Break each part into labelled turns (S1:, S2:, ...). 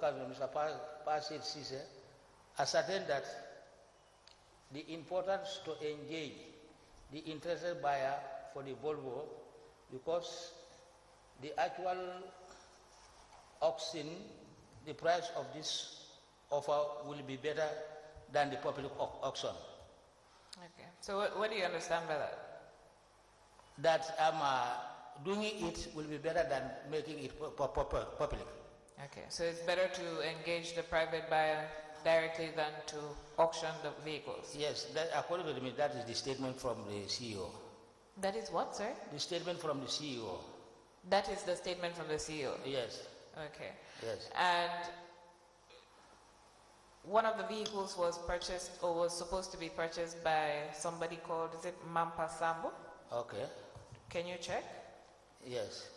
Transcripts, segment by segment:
S1: Governor, Mr. Pasid Sise, ascertained that the importance to engage the interested buyer for the Volvo because the actual auction, the price of this offer will be better than the public au- auction.
S2: Okay. So what, what do you understand by that?
S1: That um, uh, doing it will be better than making it pu- pu- pu- pu- public.
S2: Okay. So it's better to engage the private buyer directly than to auction the vehicles.
S1: Yes, that, according to me, that is the statement from the CEO.
S2: That is what, sir?
S1: The statement from the E CEO.
S2: That is the statement from the CEO.
S1: Yes,
S2: Okay.
S1: yes.
S2: And one of the vehicles was purchased or was supposed to be purchased by somebody called, is it Mampa Sambo?
S1: Okay,
S2: Can you check?
S1: yes.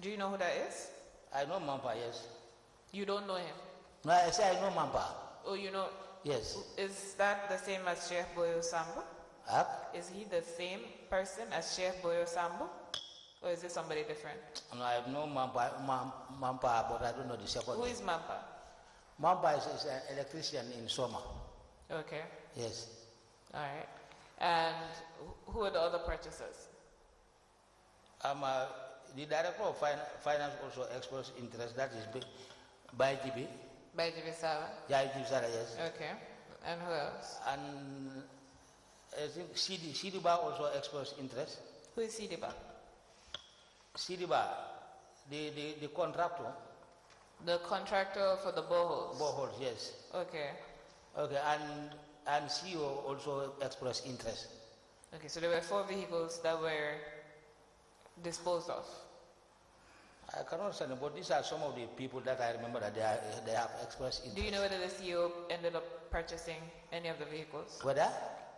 S2: Do you know who that is?
S1: I know Mampa, yes.
S2: You don't know him.
S1: No, I say I know Mampa.
S2: Oh, you know,
S1: Yes.
S2: is that the same as Sheikh Boyo Sambo?
S1: Huh?
S2: Is he the same person as Sheikh Boyo Sambo? Or is it somebody different?
S1: No, I know Mampa, Mam, Mampa, but I don't know the second.
S2: Who
S1: name.
S2: is Mampa?
S1: Mamba is, is an electrician in Soma.
S2: Okay,
S1: Yes.
S2: all right. And wh- who are the other purchasers?
S1: I'm uh, the director of fin- finance also expressed interest. That is B- by GB.
S2: By Jibisawa.
S1: Jai Jibsara, yes.
S2: Okay, and who else?
S1: And I think CD, Sidiba also expressed interest.
S2: Who is Sidiba?
S1: Sidiba, the, the, the contractor,
S2: The contractor for the boreholes.
S1: boreholes, yes.
S2: Okay,
S1: Okay, and, and CEO also expressed interest.
S2: okay, so there were four vehicles that were disposed of.
S1: I cannot understand, but these are some of the people that I remember that they, are, they have expressed interest.
S2: Do you know whether the CEO ended up purchasing any of the vehicles?
S1: Whether?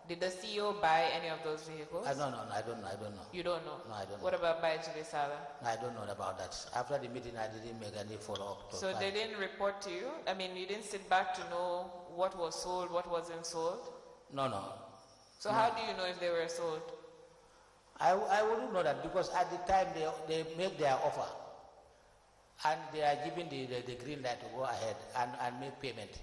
S2: Did the CEO buy any of those vehicles?
S1: I don't know. I don't know. I don't know.
S2: You don't know?
S1: No, I don't
S2: What
S1: know.
S2: about Baiji Bisala?
S1: No, I don't know about that. After the meeting, I didn't make any follow up.
S2: So they didn't report to you? I mean, you didn't sit back to know what was sold, what wasn't sold?
S1: No, no.
S2: So how do you know if they were sold?
S1: I, I wouldn't know that because at the time they, they make their offer and they are giving the, the, the green light to go ahead and, and make payment.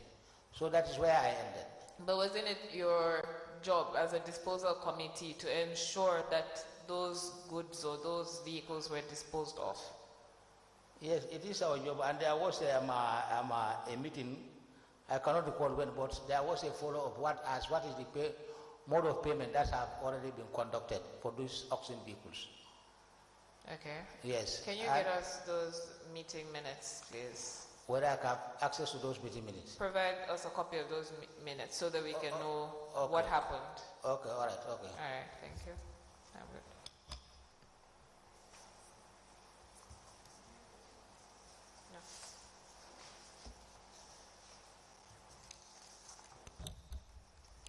S1: So that is where I ended.
S2: But wasn't it your job as a disposal committee to ensure that those goods or those vehicles were disposed of?
S1: Yes, it is our job. And there was um, a, um, a, a meeting. I cannot recall when, but there was a follow up. What as what is the pay, mode of payment that have already been conducted for these auction vehicles?
S2: Okay.
S1: Yes.
S2: Can you
S1: I-
S2: get us those meeting minutes, please?
S1: whether I can have access to those meeting minutes.
S2: Provide us a copy of those mi- minutes so that we can know
S1: Oh, okay.
S2: what happened.
S1: Okay, all right, okay.
S2: All right, thank you. I'm good. No.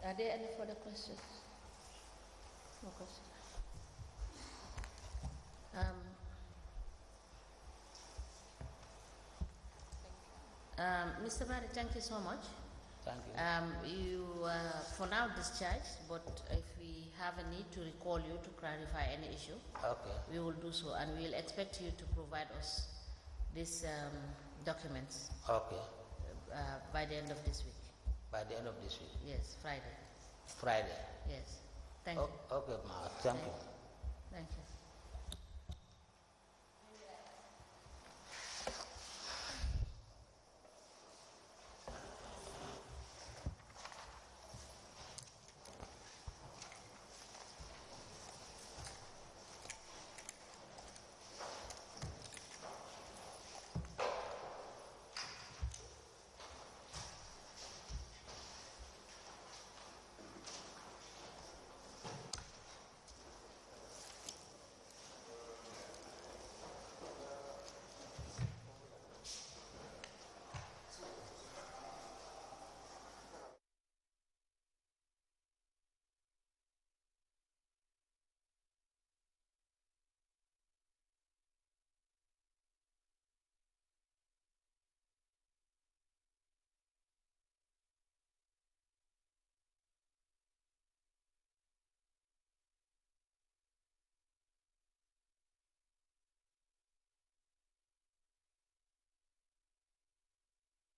S3: Are there any further questions? No questions. Um, um, Mr. Barry, thank you so much.
S1: Thank you.
S3: Um, you uh, for now discharged, but if we have a need to recall you to clarify any issue,
S1: Okay,
S3: we will do so, and we will expect you to provide us these um, documents
S1: okay.
S3: uh, by the end of this week.
S1: By the end of this week,
S3: Yes, Friday.
S1: Friday.
S3: Yes. Thank
S1: O-
S3: you.
S1: Okay, ma, thank you.
S3: Thank you.